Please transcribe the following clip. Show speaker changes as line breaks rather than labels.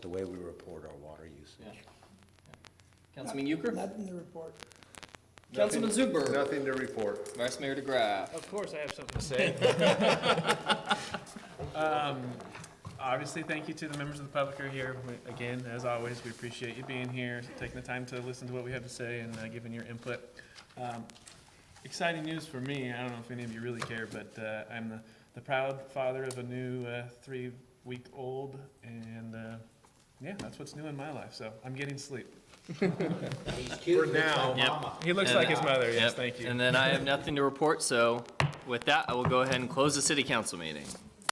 the way we report our water usage.
Councilman Euchre?
Nothing to report.
Councilman Zuber?
Nothing to report.
Vice Mayor DeGraff?
Of course, I have something to say. Um, Obviously, thank you to the members of the public who are here. We- Again, as always, we appreciate you being here, taking the time to listen to what we have to say and uh, giving your input. Um, Exciting news for me, I don't know if any of you really care, but uh, I'm the- the proud father of a new uh, three-week-old, and uh, yeah, that's what's new in my life, so I'm getting sleep.
For now.
He looks
And-
like his mother, yes,
Yep.
thank you.
And then I have nothing to report, so with that, I will go ahead and close the city council meeting.